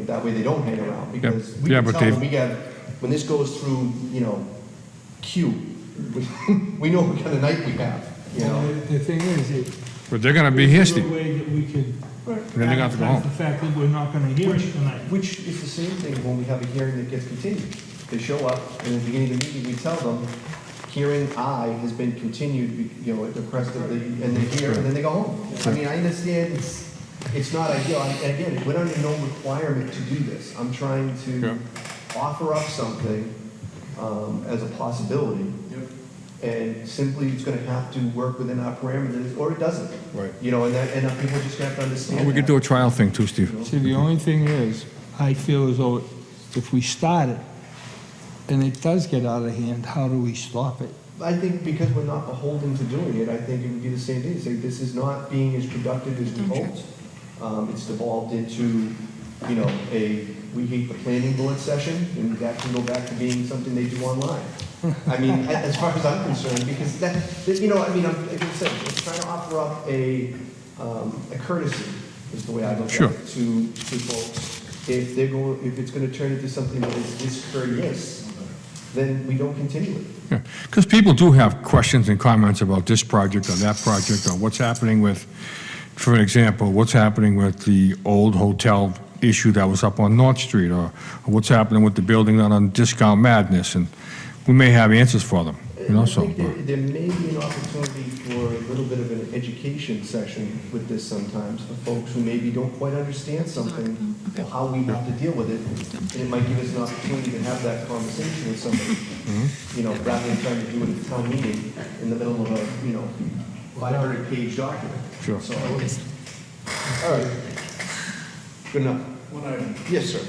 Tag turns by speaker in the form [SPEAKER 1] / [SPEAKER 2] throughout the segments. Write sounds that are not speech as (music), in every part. [SPEAKER 1] That way they don't hang around, because we
[SPEAKER 2] Yeah,
[SPEAKER 1] can
[SPEAKER 2] but
[SPEAKER 1] tell
[SPEAKER 2] they've-
[SPEAKER 1] them, we got, when this goes through, you know, Q, (laughs) we- we know what kind of night we have, you
[SPEAKER 3] Well,
[SPEAKER 1] know?
[SPEAKER 3] The the thing is, it.
[SPEAKER 2] But they're gonna be
[SPEAKER 3] there's no
[SPEAKER 2] hasty.
[SPEAKER 3] way that we could.
[SPEAKER 2] Then they got to go home.
[SPEAKER 3] advertise The fact that we're not gonna hear it tonight.
[SPEAKER 1] Which is the same thing when we have a hearing that gets continued. They show up, and at the beginning of the meeting, we tell them, hearing I has been continued, you know, at the request of the, and they hear, and then they go home. I mean, I understand it's, it's not ideal, and again, we're under no requirement to do this. I'm trying
[SPEAKER 2] Yeah.
[SPEAKER 1] to offer up something um, as a possibility. And simply, it's gonna have to work within our parameters, or it doesn't.
[SPEAKER 2] Right.
[SPEAKER 1] You know, and that, and people just have to understand
[SPEAKER 2] We could
[SPEAKER 1] that.
[SPEAKER 2] do a trial thing too, Steve.
[SPEAKER 3] See, the only thing is, I feel as though if we start it and it does get out of hand, how do we stop it?
[SPEAKER 1] I think because we're not beholden to doing it, I think it would be the same thing, say, this is not being as productive as we hoped. Um, it's devolved into, you know, a, we hate the planning board session, and that can go back to being something they do online. I mean, a- as far as I'm concerned, because that, that- you know, I mean, I'm, like I said, I'm trying to offer up a, um, a courtesy, is the way I look at
[SPEAKER 2] Sure.
[SPEAKER 1] it, to, to folks. If they're going, if it's gonna turn into something that is discourteous, then we don't continue it.
[SPEAKER 2] Because people do have questions and comments about this project or that project or what's happening with, for example, what's happening with the old hotel issue that was up on North Street or what's happening with the building down on Discount Madness, and we may have answers for them, you know, so.
[SPEAKER 1] I think there, there may be an opportunity for a little bit of an education session with this sometimes, for folks who maybe don't quite understand something, or how we have to deal with it, and it might give us an opportunity to have that conversation with somebody, you know, rather than trying to do it at a town meeting in the middle of a, you know, five hundred page document.
[SPEAKER 2] Sure.
[SPEAKER 1] So, I would- all right, good enough.
[SPEAKER 4] One item,
[SPEAKER 1] Yes, sir.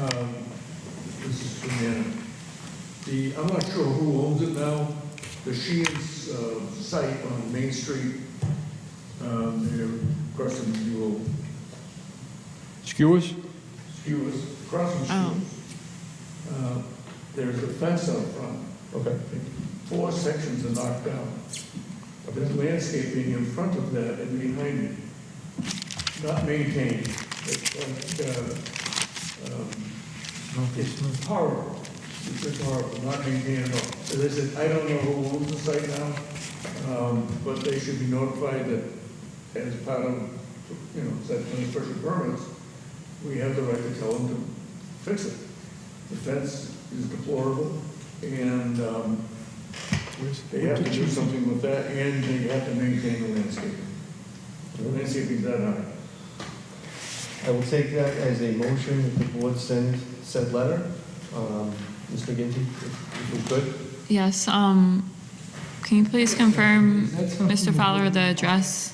[SPEAKER 4] um, this is from Anna. The, I'm not sure who owns it now, the Sheehan's, uh, site on Main Street, um, they're crossing the old
[SPEAKER 2] Skewers?
[SPEAKER 4] skewers, crossing
[SPEAKER 5] Oh.
[SPEAKER 4] skewers. Uh, There's a fence out front,
[SPEAKER 1] Okay.
[SPEAKER 4] four sections are knocked down. There's landscaping in front of that and behind it, not maintained, it's like, uh, um, It's horrible. It's just horrible, not maintained at all. So they said, I don't know who owns the site now, um, but they should be notified that as part of, you know, site plan special permits, we have the right to tell them to fix it. The fence is deplorable and, um, they have to do something with that and they have to maintain the landscaping. The landscaping's that high.
[SPEAKER 1] I will take that as a motion that the board send said letter. Um, Mr. Ginty, if if we could.
[SPEAKER 5] Yes, um, can you please confirm,
[SPEAKER 3] Is that something
[SPEAKER 5] Mr. Fowler, the address?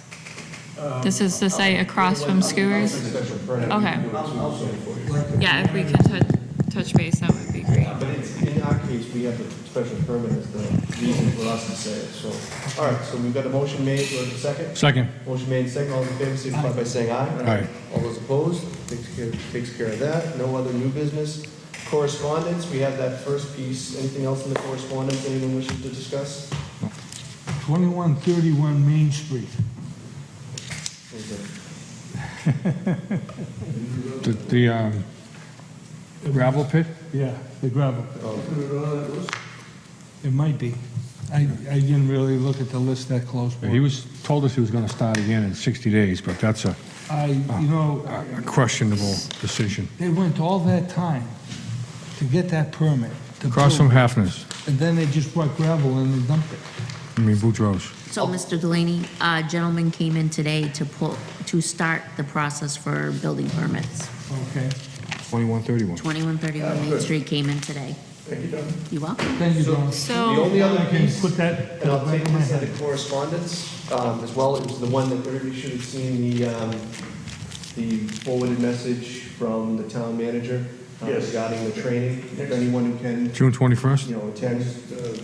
[SPEAKER 5] This is the site across
[SPEAKER 1] I'll-
[SPEAKER 5] from
[SPEAKER 1] I'll- I'll
[SPEAKER 5] Skewers?
[SPEAKER 1] take special permit.
[SPEAKER 5] Okay.
[SPEAKER 1] I'll- I'll send it for you.
[SPEAKER 5] Yeah, if we can touch, touch base, that would be great.
[SPEAKER 1] But it's, in our case, we have the special permit as the reason for us to say it, so. All right, so we've got a motion made, do I have a second?
[SPEAKER 2] Second.
[SPEAKER 1] Motion made, second, all those in favor, signify by saying aye.
[SPEAKER 2] Aye.
[SPEAKER 1] All those opposed, takes care, takes care of that. No other new business. Correspondence, we have that first piece. Anything else in the correspondence anyone wishes to discuss?
[SPEAKER 3] 2131 Main Street.
[SPEAKER 2] The- The um, gravel pit?
[SPEAKER 3] Yeah, the gravel pit.
[SPEAKER 4] Put it on that list.
[SPEAKER 3] It might be. I, I didn't really look at the list that close. but
[SPEAKER 2] He was, told us he was gonna start again in 60 days, but that's a
[SPEAKER 3] I, you know,
[SPEAKER 2] a questionable decision.
[SPEAKER 3] they went all that time to get that permit. to
[SPEAKER 2] Across from
[SPEAKER 3] build,
[SPEAKER 2] Hafner's,
[SPEAKER 3] And then they just brought gravel and they dumped it.
[SPEAKER 2] I mean Boudreaux's.
[SPEAKER 6] So, Mr. Delaney, a gentleman came in today to pull, to start the process for building permits.
[SPEAKER 3] Okay.
[SPEAKER 2] 2131.
[SPEAKER 6] 2131 Main Street came in today.
[SPEAKER 4] Thank you, Don.
[SPEAKER 6] You welcome.
[SPEAKER 3] Thank you, Don.
[SPEAKER 1] The
[SPEAKER 5] So,
[SPEAKER 1] only other
[SPEAKER 3] Can you
[SPEAKER 1] piece,
[SPEAKER 3] put that?
[SPEAKER 1] and I'll take
[SPEAKER 3] my
[SPEAKER 1] this
[SPEAKER 3] head?
[SPEAKER 1] out of correspondence, um, as well, it was the one that everybody should have seen, the, um, the forwarded message from the town manager uh,
[SPEAKER 4] Yes.
[SPEAKER 1] regarding the training, if
[SPEAKER 4] Yes.
[SPEAKER 1] anyone who can,
[SPEAKER 2] June 21st,
[SPEAKER 1] you know, attend.
[SPEAKER 4] Uh,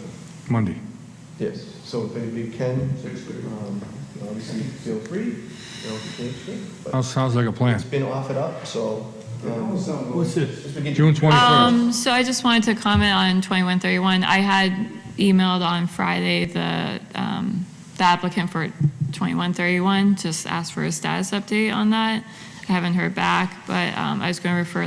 [SPEAKER 2] Monday.
[SPEAKER 1] Yes, so if anybody can,
[SPEAKER 4] Six thirty.
[SPEAKER 1] um, obviously feel free, you know, if you can't, you can't, but
[SPEAKER 2] Sounds sounds like a plan.
[SPEAKER 1] it's been offered up, so.
[SPEAKER 4] It almost sounds like-
[SPEAKER 3] What's this?
[SPEAKER 1] Just begin-
[SPEAKER 2] June 21st.
[SPEAKER 5] um, so I just wanted to comment on 2131. I had emailed on Friday the, um, the applicant for 2131, just asked for a status update on that. haven't heard back, but um, I was going to refer